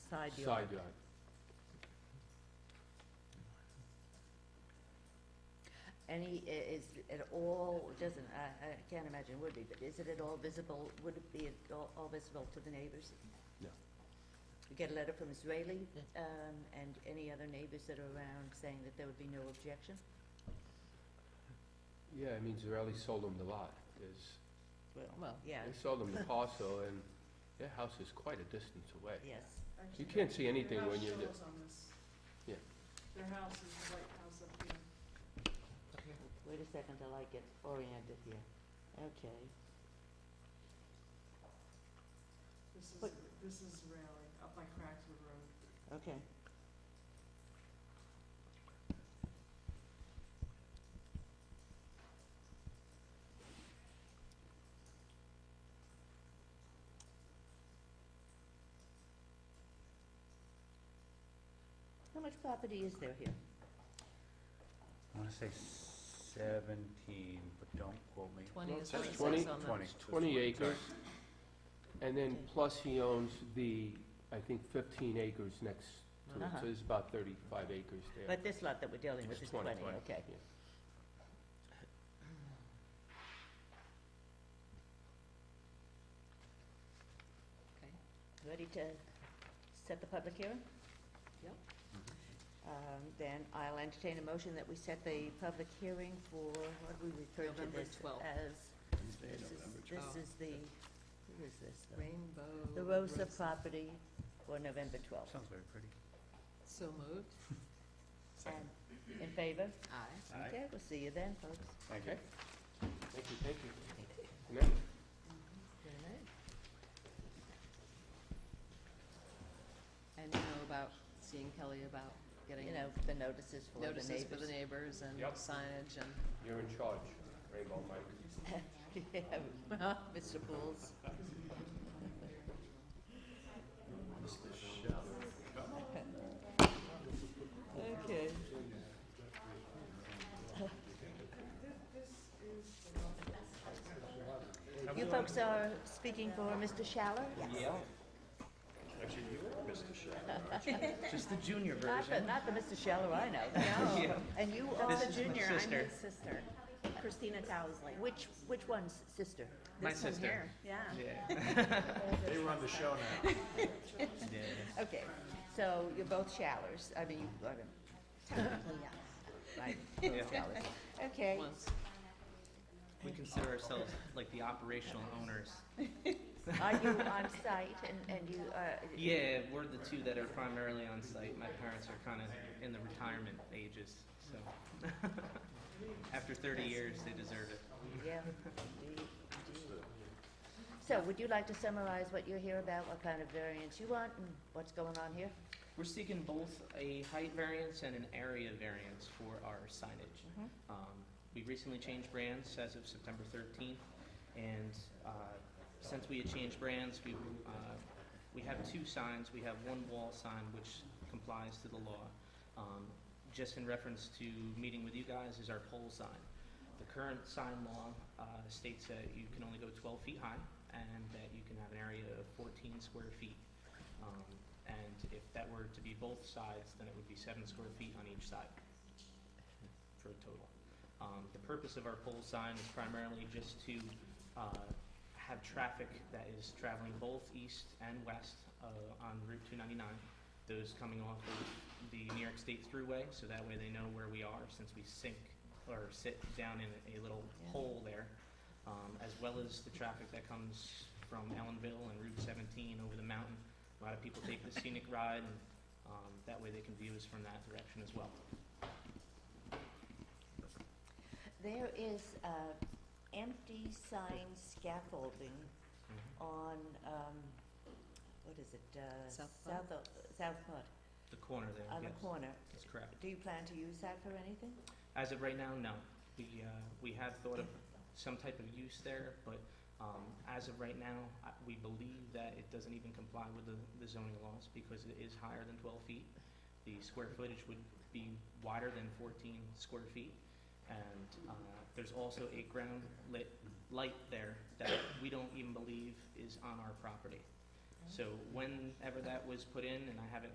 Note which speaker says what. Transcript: Speaker 1: side yard.
Speaker 2: side yard.
Speaker 1: Any, i- is it all, doesn't, I, I can't imagine would be, but is it at all visible, would it be at all, all visible to the neighbors?
Speaker 2: No.
Speaker 1: We get a letter from Israeli, um, and any other neighbors that are around saying that there would be no objection?
Speaker 2: Yeah, I mean, Zarelli sold them the lot, is,
Speaker 1: Well,
Speaker 3: Well.
Speaker 1: yeah,
Speaker 2: they sold them the parcel, and their house is quite a distance away.
Speaker 1: yes,
Speaker 2: You can't see anything when you're
Speaker 4: Their house
Speaker 2: there.
Speaker 4: shows on this.
Speaker 2: Yeah.
Speaker 4: Their house is the white house up here.
Speaker 1: wait a second till I get oriented here, okay.
Speaker 4: This is,
Speaker 1: But-
Speaker 4: this is Raleigh, up by Crackswood Road.
Speaker 1: Okay. How much property is there here?
Speaker 5: I wanna say seventeen, but don't quote me.
Speaker 3: Twenty is
Speaker 2: That's
Speaker 3: what it
Speaker 2: twenty-
Speaker 3: says on the.
Speaker 5: Twenty. that's
Speaker 2: Twenty
Speaker 5: what-
Speaker 2: acres, and then
Speaker 1: Okay.
Speaker 2: plus he owns the, I think, fifteen acres next to it,
Speaker 1: Uh-huh.
Speaker 2: so there's about thirty-five acres there.
Speaker 1: But this lot that we're dealing with
Speaker 2: It's
Speaker 1: is twenty,
Speaker 2: 20, 20,
Speaker 1: okay.
Speaker 2: yeah.
Speaker 3: Okay.
Speaker 1: Ready to set the public hearing?
Speaker 3: Yep.
Speaker 1: Um, then I'll entertain a motion that we set the public hearing for, what do we refer to
Speaker 3: November
Speaker 1: this
Speaker 3: 12th.
Speaker 1: as?
Speaker 5: Wednesday,
Speaker 1: This is,
Speaker 5: November
Speaker 3: twelfth.
Speaker 1: this is the, who is this though?
Speaker 3: Rainbow.
Speaker 1: The Rosa property for November twelfth.
Speaker 5: Sounds very pretty.
Speaker 3: So moved.
Speaker 1: And in favor?
Speaker 3: Aye.
Speaker 5: Aye.
Speaker 1: Okay, we'll see you then, folks.
Speaker 5: Thank you.
Speaker 2: Okay, thank you, thank you. Good night.
Speaker 3: And you know about seeing Kelly about getting
Speaker 1: You know, the notices for the
Speaker 3: notices for the
Speaker 1: neighbors.
Speaker 3: neighbors and
Speaker 2: Yep.
Speaker 3: signage and.
Speaker 2: You're in charge, Rainbow Mike.
Speaker 1: Yeah, Mr. Pools. Okay. You folks are speaking for Mr. Schaller? Yes.
Speaker 5: Actually, you are Mr. Just the junior
Speaker 1: Not the,
Speaker 5: version.
Speaker 1: not the Mr. Schaller I know.
Speaker 5: Yeah.
Speaker 1: And you are,
Speaker 5: This is my
Speaker 6: Junior, I'm
Speaker 5: sister.
Speaker 6: his sister, Christina Dowsley.
Speaker 1: which, which one's sister?
Speaker 5: My
Speaker 6: This one
Speaker 5: sister.
Speaker 6: here, Yeah.
Speaker 5: They run the show now.
Speaker 1: Okay, so you're both Schallers, I mean, you, I don't-
Speaker 6: Technically, yes.
Speaker 1: Right,
Speaker 5: Yeah.
Speaker 1: Dallas. Okay,
Speaker 3: Once.
Speaker 7: We consider ourselves like the operational owners.
Speaker 1: are you on site and, and you, uh?
Speaker 7: Yeah, we're the two that are primarily on site. My parents are kind of in the retirement ages, so. After 30 years, they deserve it.
Speaker 1: Yeah. indeed, indeed. So would you like to summarize what you're here about, what kind of variance you want and what's going on here?
Speaker 7: We're seeking both a height variance and an area variance for our signage.
Speaker 6: Mm-hmm.
Speaker 1: Mhm.
Speaker 7: Um, We recently changed brands as of September 13th, and uh, since we had changed brands, we, uh, we have two signs. We have one wall sign which complies to the law. Um, Just in reference to meeting with you guys is our pole sign. The current sign law uh, states that you can only go 12 feet high and that you can have an area of 14 square feet. Um, And if that were to be both sides, then it would be seven square feet on each side for a total. Um, The purpose of our pole sign is primarily just to uh, have traffic that is traveling both east and west uh, on Route 299, those coming off of the New York State Thruway, so that way they know where we are since we sink or sit down in a little
Speaker 1: Yeah.
Speaker 7: hole there, um, as well as the traffic that comes from Ellenville and Route 17 over the mountain. A lot of people take the scenic ride, and um, that way they can view us from that direction as well.
Speaker 1: There is, uh, empty sign scaffolding on, um, what is it, uh?
Speaker 3: South Pond?
Speaker 1: South, O- South Pond,
Speaker 7: The corner there, yes.
Speaker 1: on the corner.
Speaker 7: That's correct.
Speaker 1: Do you plan to use that for anything?
Speaker 7: As of right now, no. We, uh, we have thought of some type of use there, but, um, as of right now, I, we believe that it doesn't even comply with the, the zoning laws because it is higher than twelve feet. The square footage would be wider than fourteen square feet. And, uh, there's also a ground lit light there that we don't even believe is on our property. So whenever that was put in, and I haven't